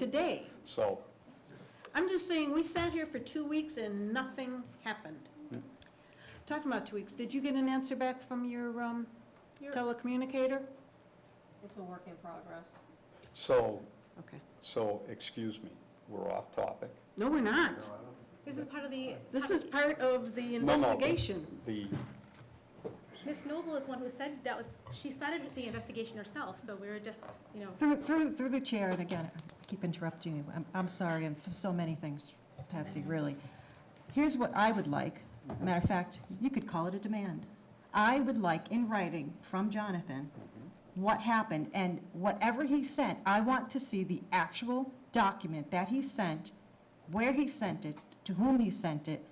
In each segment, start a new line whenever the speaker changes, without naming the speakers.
today.
So,
I'm just saying, we sat here for two weeks and nothing happened. Talking about two weeks, did you get an answer back from your um, telecommunicator?
It's a work in progress.
so,
Okay.
so, excuse me, we're off topic.
No, we're not.
This is part of the.
This is part of the
No, no,
investigation.
The,
Ms. Noble is one who said that was, she started the investigation herself, so we were just, you know,
Through, through, through the chair, and again, I keep interrupting you. I'm, I'm sorry, I'm for so many things, Patsy, really. Here's what I would like. Matter of fact, you could call it a demand. I would like in writing from Jonathan what happened, and whatever he sent, I want to see the actual document that he sent, where he sent it, to whom he sent it.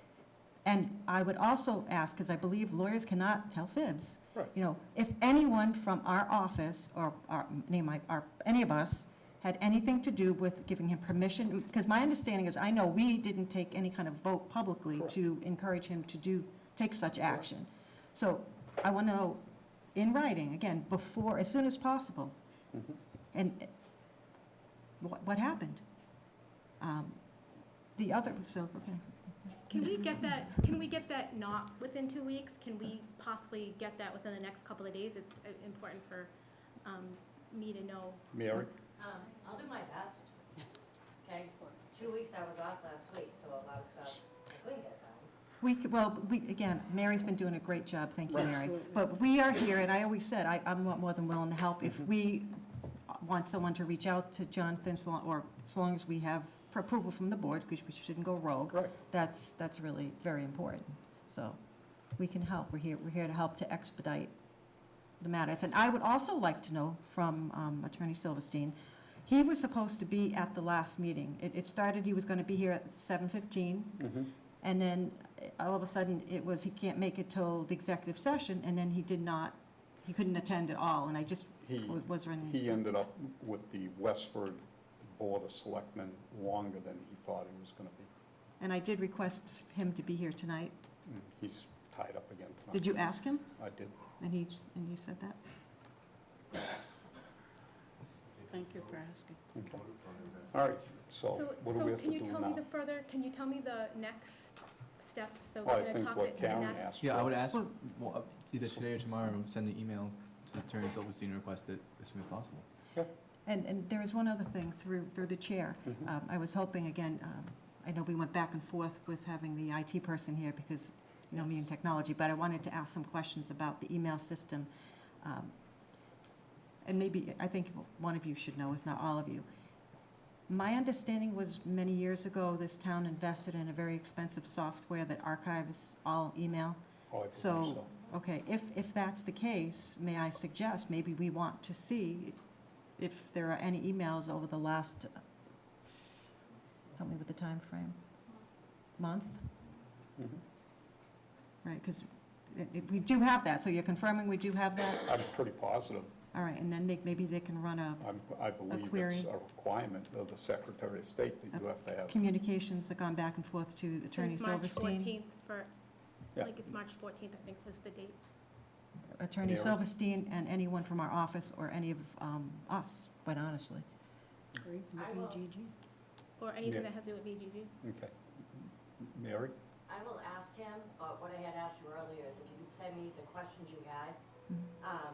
And I would also ask, because I believe lawyers cannot tell fibs.
Right.
You know, if anyone from our office or our, name my, our, any of us had anything to do with giving him permission, because my understanding is, I know we didn't take any kind of vote publicly
Correct.
to encourage him to do, take such action. So I want to know in writing, again, before, as soon as possible.
Mhm.
And uh, what, what happened? Um, The other, so, okay.
can we get that, can we get that not within two weeks? Can we possibly get that within the next couple of days? It's uh, important for um, me to know.
Mary,
Um, I'll do my best. Okay, two weeks I was off last week, so a lot of stuff I couldn't get done.
We, could- well, we, again, Mary's been doing a great job, thank you, Mary. But we are here, and I always said, I, I'm more than willing to help if we want someone to reach out to Jonathan, so long- or so long as we have approval from the board, because we shouldn't go rogue.
right,
That's, that's really very important. So we can help. We're here, we're here to help to expedite the matters. And I would also like to know from um, Attorney Silverstein, he was supposed to be at the last meeting. It, it started, he was going to be here at 7:15.
Mhm.
And then eh, all of a sudden, it was, he can't make it till the executive session, and then he did not, he couldn't attend at all, and I just
He-
wa- was running.
He um, ended up with the Westford Board of Selectmen longer than he thought he was gonna be.
And I did request him to be here tonight.
Mm, He's tied up again tonight.
Did you ask him?
I did.
And he, and he said that?
Thank you for asking.
Okay. All right, so
So,
what do we
so
have to
can you
do
tell me
now?
the further, can you tell me the next steps? So
Well, I
we're going to
think
talk
what
it
Karen
next.
asked.
Yeah, I would ask,
Well-
well, up- either today or tomorrow, send an email to Attorney Silverstein and request it as soon as possible.
And, and there is one other thing through, through the chair.
Mhm.
Um, I was hoping, again, um, I know we went back and forth with having the IT person here because, you know, me and technology, but I wanted to ask some questions about the email system. Um, And maybe, I think one of you should know, if not all of you. My understanding was many years ago, this town invested in a very expensive software that archives all email.
Oh, I believe
so-
so.
Okay, if, if that's the case, may I suggest, maybe we want to see if there are any emails over the last, help me with the time frame. month,
Mhm.
right, because we do have that, so you're confirming we do have that?
I'm pretty positive.
All right, and then they, maybe they can run a
I'm, I believe
query.
it's a requirement of the Secretary of State that you have to have.
communications that gone back and forth to Attorney
Since March
Silverstein.
14th for,
Yeah.
like, it's March 14th, I think was the date.
Attorney
Mary.
Silverstein and anyone from our office or any of um, us, quite honestly.
I will-
Or anything
Yeah.
that has to do with BGG.
Okay. Mary?
I will ask him, uh, what I had asked you earlier is if you could send me the questions you had.
Mm-hmm.
Um,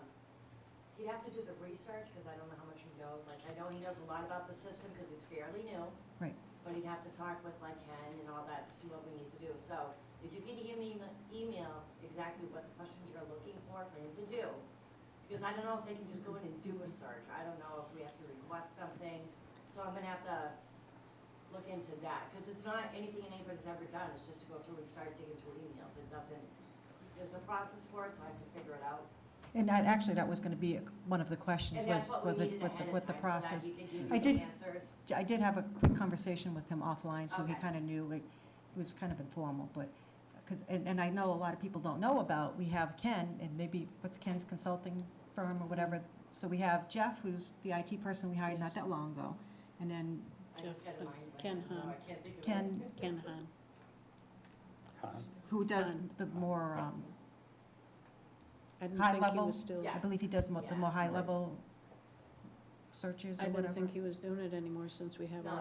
he'd have to do the research, cause I don't know how much he knows, like, I know he knows a lot about the system, cause he's fairly new.
Right.
But he'd have to talk with like Ken and all that to see what we need to do, so if you could give me an email exactly what the questions you're looking for for him to do. Because I don't know if they can just go in and do a search, I don't know if we have to request something, so I'm gonna have to look into that, because it's not anything anybody's ever done, it's just to go through and start digging through emails, it doesn't, there's a process for it, so I have to figure it out.
And that, actually, that was going to be one of the questions,
And
was,
that's what
was
we
it,
needed
what the,
ahead of
what the
time, so
process.
that he
I
could give
did-
me the answers.
I did have a quick conversation with him offline, so he
Okay.
kind of knew, it it was kind of informal, but, because, and, and I know a lot of people don't know about, we have Ken, and maybe, what's Ken's consulting firm or whatever, so we have Jeff, who's the IT person we hired not
Yes.
that long ago, and then
I just got a mind blank.
Ken
No,
Hahn.
I can't think of it.
Ken,
Ken Han.
Huh?
who does
Done.
the more, um,
I didn't
High
think he
level.
was still.
I believe he does mo- the more
Yeah.
Right.
high-level searches
I
or
didn't
whatever?
think he was doing it anymore since we have
No,
our